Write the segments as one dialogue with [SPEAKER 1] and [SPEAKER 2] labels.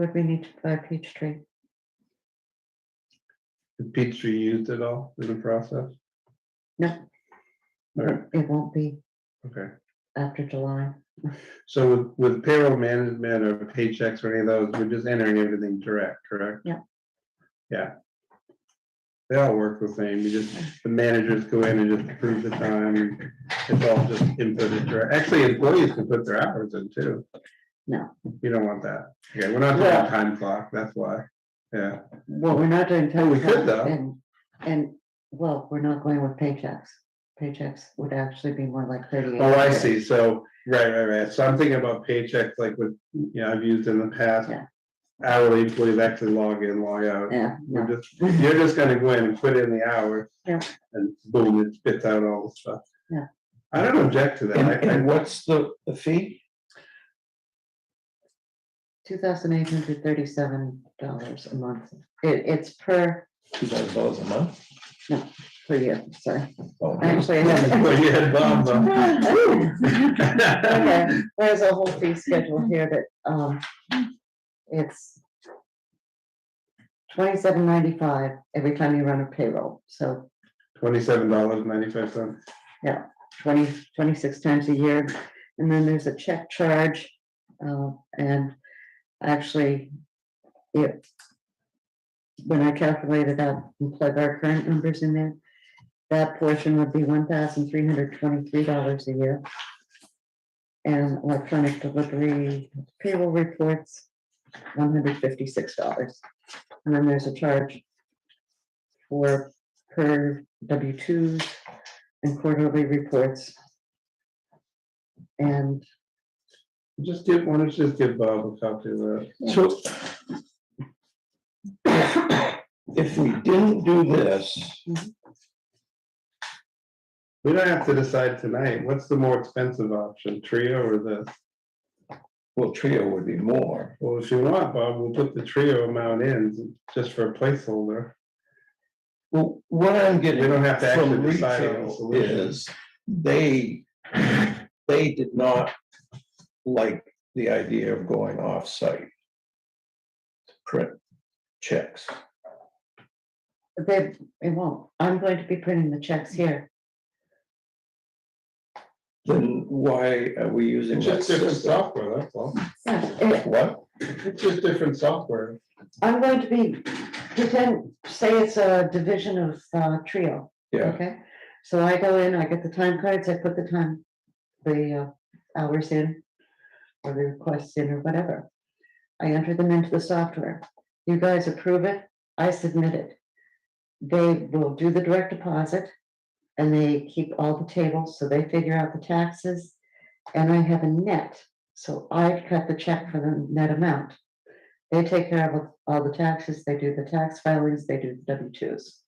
[SPEAKER 1] Would we need to buy Peachtree?
[SPEAKER 2] Did Peachtree used at all in the process?
[SPEAKER 1] No.
[SPEAKER 2] All right,
[SPEAKER 1] It won't be
[SPEAKER 2] okay.
[SPEAKER 1] after July.
[SPEAKER 2] So with, with payroll management or paychecks or any of those, we're just entering everything direct, correct?
[SPEAKER 1] Yeah.
[SPEAKER 2] Yeah. They all work the same. You just, the managers go in and just approve the time. It's all just inputted direct. Actually, employees can put their hours in too.
[SPEAKER 1] No.
[SPEAKER 2] You don't want that. Okay, we're not doing
[SPEAKER 1] Yeah.
[SPEAKER 2] a time clock, that's why. Yeah,
[SPEAKER 1] Well, we're not doing.
[SPEAKER 2] Well, Oh, we
[SPEAKER 1] tax
[SPEAKER 2] could, though.
[SPEAKER 1] And, and, well, we're not going with paychecks. Paychecks would actually be more like thirty-eight.
[SPEAKER 2] Oh, I
[SPEAKER 1] hours.
[SPEAKER 2] see. So, right, right, right. So I'm thinking about paychecks like with, you know, I've used in the past.
[SPEAKER 1] Yeah.
[SPEAKER 2] Hourly employees actually log in, log out.
[SPEAKER 1] Yeah,
[SPEAKER 2] We're
[SPEAKER 1] no,
[SPEAKER 2] just, you're just gonna go in and put in the hours.
[SPEAKER 1] Yeah.
[SPEAKER 2] And boom, it spits out all the stuff.
[SPEAKER 1] Yeah.
[SPEAKER 2] I don't object to
[SPEAKER 3] And,
[SPEAKER 2] that. I- I-
[SPEAKER 3] and what's the, the fee?
[SPEAKER 1] two thousand eight hundred thirty-seven dollars a month. It, it's per,
[SPEAKER 3] Two thousand dollars a month?
[SPEAKER 1] per year, sorry.
[SPEAKER 3] Oh, okay.
[SPEAKER 1] Actually,
[SPEAKER 2] Well, you had Bob,
[SPEAKER 1] Okay,
[SPEAKER 2] uh,
[SPEAKER 1] there's a whole fee schedule here that, um, it's twenty-seven ninety-five every time you run a payroll, so
[SPEAKER 2] Twenty-seven dollars ninety-five cents.
[SPEAKER 1] 20 26 times a year. And then there's a check charge, uh, and actually, it, when I calculated out and plug our current numbers in there, that portion would be one thousand three hundred twenty-three dollars a year. And electronic delivery payroll reports, one hundred fifty-six dollars. And then there's a charge for per W twos and quarterly reports. And
[SPEAKER 2] Just give, why don't you just give Bob a copy of that?
[SPEAKER 3] So. If we didn't do this,
[SPEAKER 2] We don't have to decide tonight. What's the more expensive option, Trio or this?
[SPEAKER 3] well, Trio would be more.
[SPEAKER 2] Well, if you want, Bob, we'll put the trio amount in just for a placeholder.
[SPEAKER 3] Well, what I'm getting.
[SPEAKER 2] We don't have to actually
[SPEAKER 3] from
[SPEAKER 2] decide on the
[SPEAKER 3] retail
[SPEAKER 2] solution.
[SPEAKER 3] Is they, they did not like the idea of going off-site. to Print checks.
[SPEAKER 1] they, it won't, I'm going to be printing the checks here.
[SPEAKER 3] Then why are we using
[SPEAKER 2] It's
[SPEAKER 3] that
[SPEAKER 2] just different
[SPEAKER 3] system?
[SPEAKER 2] software, that's all.
[SPEAKER 1] Yeah, it-
[SPEAKER 3] What?
[SPEAKER 2] It's just different software.
[SPEAKER 1] Eh, I'm going to be, pretend, say it's a division of uh, Trio,
[SPEAKER 3] Yeah,
[SPEAKER 1] okay? So I go in, I get the time cards, I put the time, the uh, hours in, or the requests in, or whatever. I enter them into the software. You guys approve it, I submit it. They will do the direct deposit, and they keep all the tables, so they figure out the taxes. And I have a net, so I cut the check for the net amount. They take care of all the taxes, they do the tax filings, they do the W twos.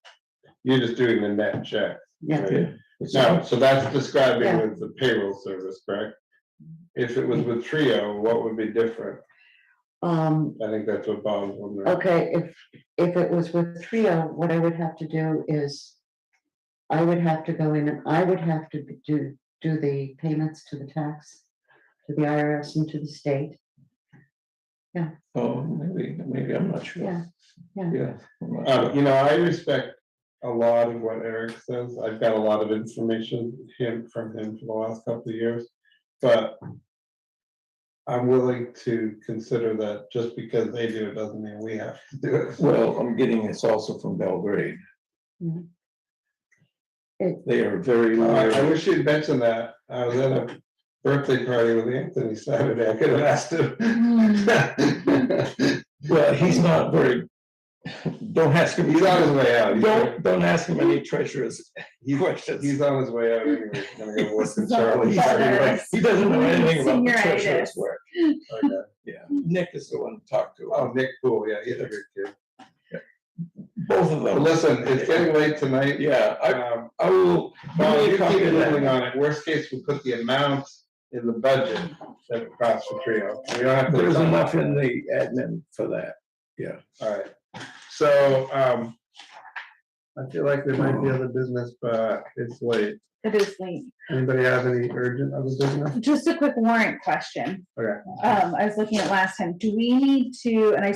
[SPEAKER 2] You're just doing the net check.
[SPEAKER 1] Yeah,
[SPEAKER 2] right?
[SPEAKER 3] It's
[SPEAKER 2] No, so that's describing
[SPEAKER 1] Yeah.
[SPEAKER 2] with the payroll service, correct? If it was with trio, what would be different?
[SPEAKER 1] um,
[SPEAKER 2] I think that's what Bob's wondering.
[SPEAKER 1] Okay, if, if it was with Trio, what I would have to do is, I would have to go in and I would have to be- do, do the payments to the tax, to the IRS and to the state.
[SPEAKER 3] Oh, maybe, maybe, I'm not sure.
[SPEAKER 1] Yeah,
[SPEAKER 3] Yeah. I'm
[SPEAKER 2] Um,
[SPEAKER 3] not sure. Uh,
[SPEAKER 2] you know, I respect a lot of what Eric says. I've got a lot of information him from him for the last couple of years, but I'm willing to consider that just because they do it doesn't mean we have to do it.
[SPEAKER 3] Well, I'm getting this also from Belgrade.
[SPEAKER 1] Mhm. It-
[SPEAKER 3] They are very,
[SPEAKER 2] I I
[SPEAKER 3] loyal.
[SPEAKER 2] wish you'd mentioned that. I was at a birthday party with Anthony Saturday. I could have asked him.
[SPEAKER 3] well, he's not very, don't ask him.
[SPEAKER 2] He's on his way out. He's-
[SPEAKER 3] Don't, don't ask him any treacherous
[SPEAKER 2] He's,
[SPEAKER 3] questions.
[SPEAKER 2] he's on his way out anyway. He's gonna go work in Charlie's.
[SPEAKER 3] He's- He doesn't know anything about the treacherous
[SPEAKER 4] Senioritis.
[SPEAKER 3] work.
[SPEAKER 2] Okay.
[SPEAKER 3] Yeah, Mm-hmm. Uh, Nick is the one to talk to.
[SPEAKER 2] Oh, Nick Poole, yeah, he's a good kid.
[SPEAKER 3] Both of
[SPEAKER 2] But
[SPEAKER 3] them.
[SPEAKER 2] listen, it's getting late tonight.
[SPEAKER 3] Yeah, I,
[SPEAKER 2] Um,
[SPEAKER 3] I will.
[SPEAKER 2] Well, you
[SPEAKER 3] I'll copy
[SPEAKER 2] keep
[SPEAKER 3] of that.
[SPEAKER 2] moving on it. Worst case, we put the amount in the budget that it costs for Trio. We don't have to.
[SPEAKER 3] There's enough in the admin for that.
[SPEAKER 2] All right, so, um, I feel like there might be other business, but it's late.
[SPEAKER 4] It is late.
[SPEAKER 2] Anybody have any urgent other business?
[SPEAKER 4] Just a quick warrant question.
[SPEAKER 2] Okay.
[SPEAKER 4] Um, I was looking at last time, do we need to, and I